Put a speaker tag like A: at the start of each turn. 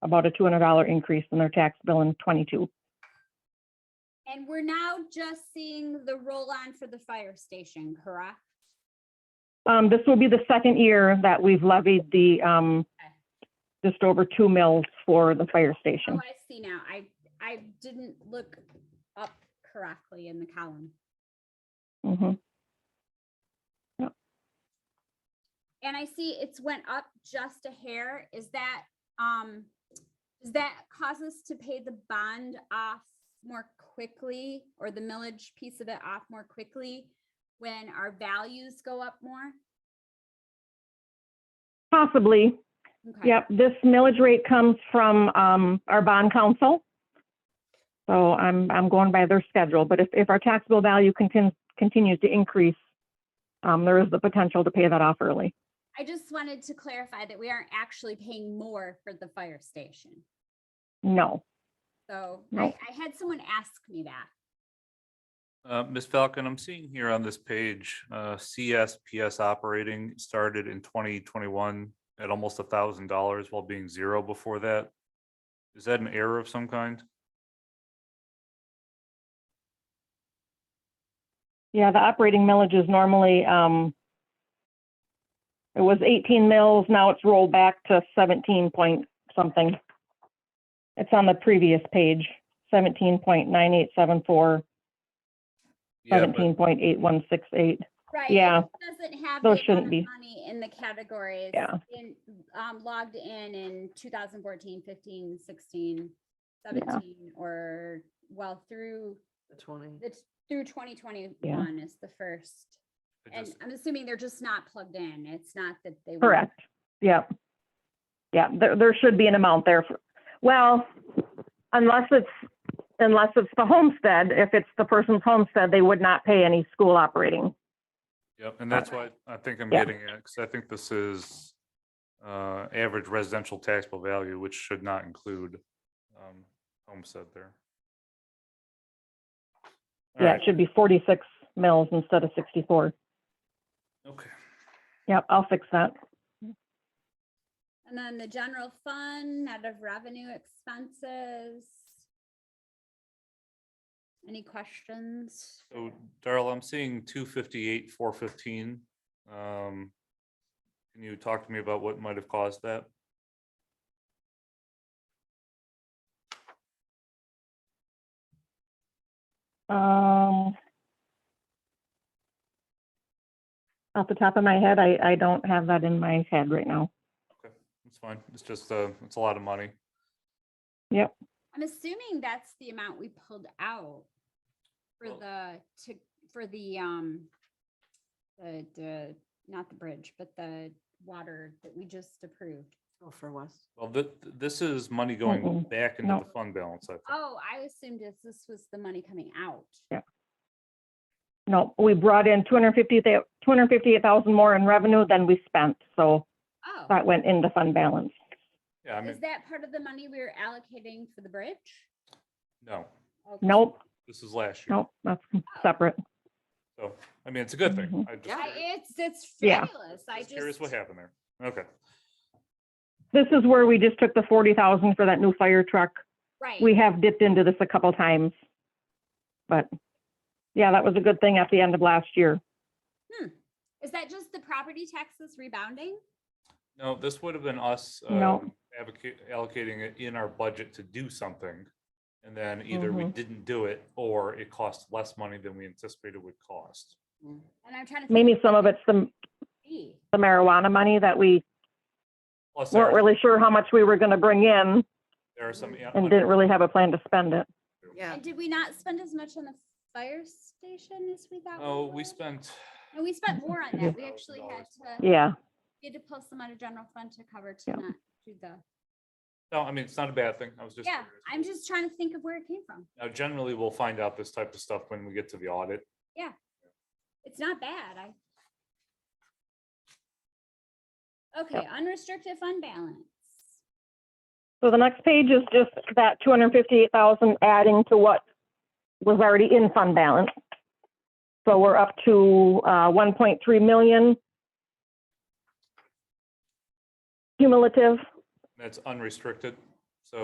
A: about a $200 increase in their tax bill in '22.
B: And we're now just seeing the roll-on for the fire station, correct?
A: Um, this will be the second year that we've levied the, um, just over two mills for the fire
B: Oh,
A: station.
B: I see now. I, I didn't look up correctly in the column.
A: Mhm.
B: And I see it's went up just a hair. Is that, um, does that cause us to pay the bond off more quickly or the millage piece of it off more quickly when our values go up more?
A: Possibly,
B: Okay.
A: yep. This millage rate comes from, um, our bond council. So I'm, I'm going by their schedule, but if, if our taxable value continues, continues to increase, um, there is the potential to pay that off early.
B: I just wanted to clarify that we aren't actually paying more for the fire station.
A: No.
B: So I,
A: No.
B: I had someone ask me that.
C: Uh, Ms. Falcon, I'm seeing here on this page, uh, CSPS operating started in twenty twenty-one at almost a thousand dollars while being zero before that. Is that an error of some kind?
A: Yeah, the operating millage is normally, um, it was 18 mills, now it's rolled back to 17 point something. It's on the previous page, 17.9874,
C: Yeah, but
A: 17.8168.
B: Right. it
A: Yeah.
B: just Doesn't have.
A: Those
B: the
A: shouldn't
B: amount of
A: be.
B: Money in the categories.
A: Yeah.
B: In, um, logged in in 2014, 15, 16,
A: Yeah.
B: 17, or well, through,
D: The twenty.
B: it's through 2021 is the first.
C: it
B: And
C: just-
B: I'm assuming they're just not plugged in. It's not that they. weren't.
A: Correct. Yep. Yeah, there, there should be an amount there. for- Well, unless it's, unless it's the homestead, if it's the person's homestead, they would not pay any school operating.
C: Yep, and that's why I think I'm
A: Yeah.
C: getting at, because I think this is uh, average residential taxable value, which should not include um, homestead there. All
A: Yeah,
C: right,
A: it should be 46 mills instead of 64.
C: Okay.
A: Yep, I'll fix that.
B: And then the general fund, out of revenue expenses. Any questions?
C: So Darla, I'm seeing two fifty-eight, four fifteen. Um, can you talk to me about what might have caused that?
A: Um, off the top of my head, I, I don't have that in my head right now.
C: It's fine. It's just, uh, it's a lot of money.
B: I'm assuming that's the amount we pulled out for
C: Well-
B: the, to, for the, um, the, the, not the bridge, but the water that we just approved.
D: Oh, for West.
C: Well, th- this is money going
A: Mm-mm.
C: back into
A: No.
C: the fund balance, I think.
B: Oh, I assumed this, this was the money coming out.
A: No, we brought in 250, 258,000 more in revenue than we spent, so
B: Oh,
A: that went into fund balance.
C: Yeah, I
B: is
C: mean,
B: that part of the money we were allocating for the bridge?
C: no,
B: Okay.
A: Nope,
C: this is last year.
A: nope, that's separate.
C: So, I mean, it's a good thing.
A: Mhm.
C: I just,
B: I- It's, it's
A: Yeah.
B: fabulous. I
C: just curious
B: just,
C: what happened there. Okay.
A: This is where we just took the 40,000 for that new fire truck.
B: right.
A: We have dipped into this a couple times. But, yeah, that was a good thing at the end of last year.
B: Hmm. Is that just the property taxes rebounding?
C: No, this would have been us
A: No.
C: um, advoca- allocating it in our budget to do something. And then either we
A: Mhm.
C: didn't do it or it cost less money than we anticipated would cost.
B: And I'm trying to. think
A: Maybe
B: what
A: some of
B: that
A: it's the
B: could be.
A: the marijuana money that we
C: Plus, there
A: weren't
C: are-
A: really sure how much we were going to bring in
C: there are some. yeah,
A: and didn't really have a plan to spend it.
D: Yeah.
B: And did we not spend as much on the fire station as we thought?
C: Oh, we
B: would?
C: spent,
B: No, we spent more on that. We
C: Yeah.
B: actually had to,
A: Yeah,
B: we had to pull some out of general fund to cover to
A: Yeah.
B: not do the,
C: no, I mean, it's not a bad thing. I was just.
B: yeah,
C: curious.
B: I'm just trying to think of where it came from.
C: Now generally, we'll find out this type of stuff when we get to the audit.
B: It's not bad. I. Okay, unrestricted fund balance.
A: so the next page is just that two hundred fifty-eight thousand adding to what was already in fund balance. So we're up to, uh, one point three million cumulative,
C: That's unrestricted.